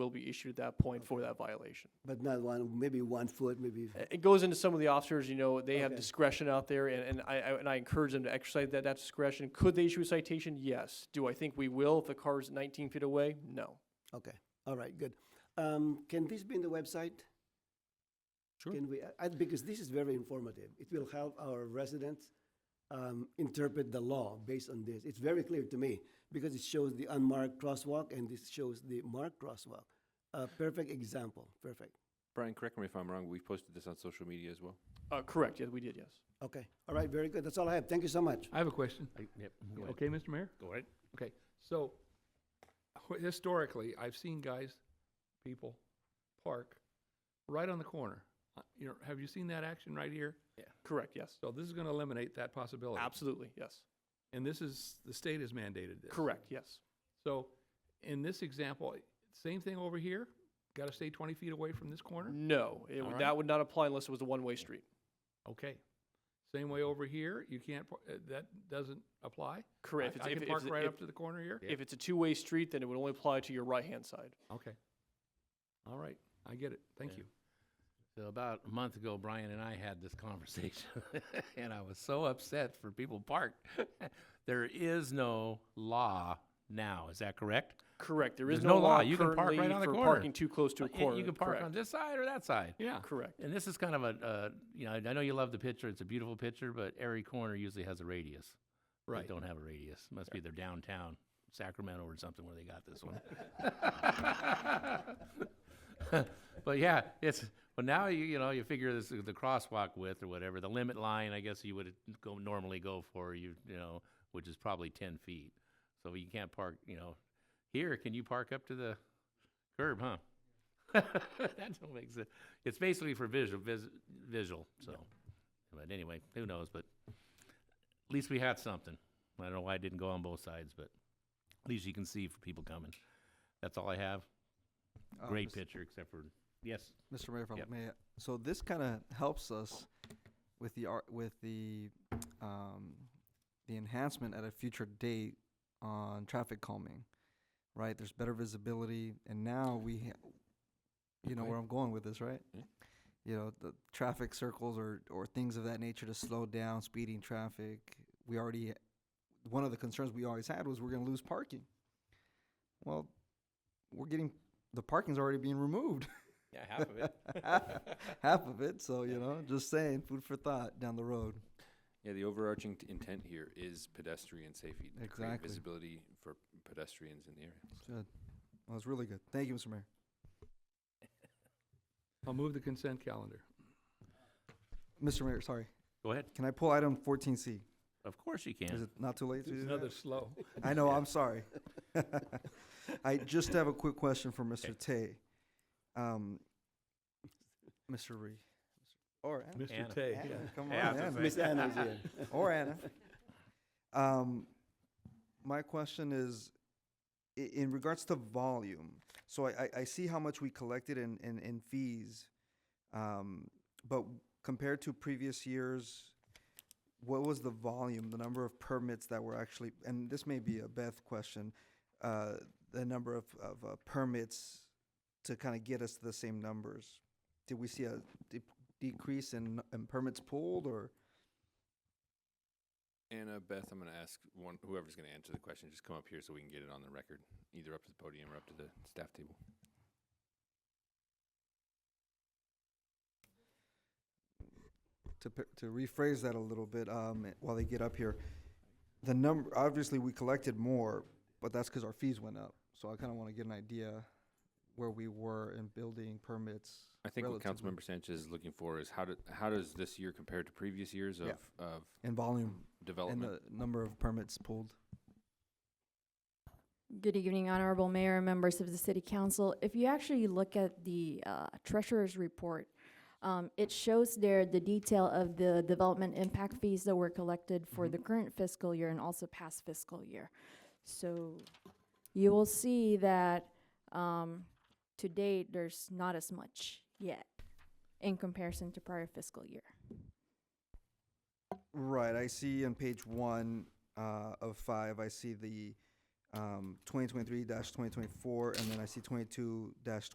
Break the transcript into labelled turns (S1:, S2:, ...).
S1: will be issued at that point for that violation.
S2: But not one, maybe one foot, maybe,
S1: Uh, It goes into some of the officers, you know, they have
S2: Okay.
S1: discretion out there, and, and I, I, and I encourage them to exercise that, that discretion. Could they issue a citation? Yes. Do I think we will if the car's nineteen feet away? No.
S2: okay, all right, good. Um, Can this be in the website?
S3: Sure.
S2: Can we, I- I- because this is very informative. It will help our residents um, interpret the law based on this. It's very clear to me because it shows the unmarked crosswalk and this shows the marked crosswalk. A perfect example, perfect.
S3: Brian, correct me if I'm wrong, we've posted this on social media as well.
S1: Uh, correct, yeah, we did, yes.
S2: Okay, all right, very good. That's all I have. Thank you so much.
S4: I have a question.
S5: I- Yep, go ahead.
S4: Okay, Mr. Mayor?
S5: Go ahead.
S4: Okay, so wh- historically, I've seen guys, people park right on the corner. Uh, You know, have you seen that action right here?
S1: Yeah. Correct, yes.
S4: So this is gonna eliminate that possibility.
S1: Absolutely, yes.
S4: And this is, the state has mandated this.
S1: Correct, yes.
S4: So in this example, same thing over here, gotta stay twenty feet away from this corner?
S1: No, it,
S4: All
S1: would
S4: right.
S1: that would not apply unless it was a one-way street. Mm-hmm.
S4: Okay. Same way over here, you can't, par- uh, that doesn't apply?
S1: Correct.
S4: I
S1: If
S4: I
S1: it's-
S4: can
S1: if
S4: park
S1: it's-
S4: right
S1: if-
S4: up to the corner here?
S1: If it's a two-way street, then it would only apply to your right-hand side.
S4: Okay. All right, I get it, thank
S5: Yeah.
S4: you.
S5: So about a month ago, Brian and I had this conversation, and I was so upset for people parked. there is no law now. Is that correct?
S1: Correct, there is
S5: There's
S1: no
S5: no law.
S1: law
S5: You can park
S1: currently
S5: right on the
S1: for
S5: corner.
S1: parking too close to a
S5: Uh, y-
S1: corner.
S5: You can park
S1: correct,
S5: on this side or that side.
S4: Yeah.
S1: Correct,
S5: And this is kind of a, uh, you know, I know you love the picture. It's a beautiful picture, but every corner usually has a radius. They
S4: Right.
S5: don't have a radius. Must be their downtown Sacramento or something where they got this one. but yeah, it's well now you you know you figure this the crosswalk width or whatever the limit line I guess you would go normally go for you you know which is probably ten feet. So you can't park you know here can you park up to the curb huh? that don't make sense. It's basically for visual vis, visual so. But anyway, who knows? But at least we had something. I don't know why it didn't go on both sides, but at least you can see for people coming. That's all I have.
S6: Uh,
S5: Great
S6: Mis-
S5: picture, except for yes.
S6: Mr. Mayor, if I
S5: Yep.
S6: may, so this kind of helps us with the ar- with the um, the enhancement at a future date on traffic calming, right? There's better visibility, and now we, ha- you know,
S3: Okay.
S6: where I'm going with this, right?
S3: Yeah.
S6: You know, the traffic circles or or things of that nature to slow down speeding traffic. We already one of the concerns we always had was we're going to lose parking. Well, we're getting the parking's already being removed.
S5: Yeah, half of it.
S6: half of it. So you know, just saying, food for thought down the road.
S3: Yeah, the overarching t- intent here is pedestrian safety. to create
S6: Exactly.
S3: Visibility for pedestrians in the area.
S6: Good. Well, it's really good. Thank you, Mr. Mayor.
S4: I'll move the consent calendar.
S6: Mr. Mayor, sorry.
S5: Go ahead.
S6: Can I pull item 14C?
S5: Of course you
S6: Is
S5: can.
S6: it not too late to do
S4: Another
S6: that?
S4: slow.
S6: I know. I'm sorry. I just have a quick question for Mr. Tay. Um, Mr. Ree. Or Anna.
S4: Mr.
S5: Anna.
S4: Tay,
S6: Anna,
S4: yeah.
S6: Come on,
S5: Yeah, I was gonna
S6: Anna.
S5: say.
S2: Miss Anna is here.
S6: or Anna. Um, my question is, i- in regards to volume. So I, I, I see how much we collected in in, in fees, um, but compared to previous years, what was the volume, the number of permits that were actually? And this may be a Beth question. Uh, the number of of uh, permits to kind of get us to the same numbers. Did we see a de- decrease in, in permits pulled or?
S3: Anna, Beth, I'm going to ask one, whoever's going to answer the question, just come up here so we can get it on the record, either up to the podium or up to the staff table.
S6: to p- to rephrase that a little bit um, while they get up here, the number obviously we collected more, but that's because our fees went up. So I kind of want to get an idea where we were in building permits.
S3: I think what
S6: relatively-
S3: Councilmember Sanchez is looking for is how do, how does this year compare to previous years of,
S6: Yeah.
S3: of
S6: and volume and
S3: development?
S6: the number of permits pulled.
S7: Good evening, Honorable Mayor and members of the City Council. If you actually look at the uh, Treasurer's Report, um, it shows there the detail of the development impact fees that were collected for the current fiscal year and also past fiscal year. So you will see that um, to date, there's not as much yet in comparison to prior fiscal year.
S6: Right, I see on page one uh, of five. I see the um, 2023-2024, and then I see 22-2025.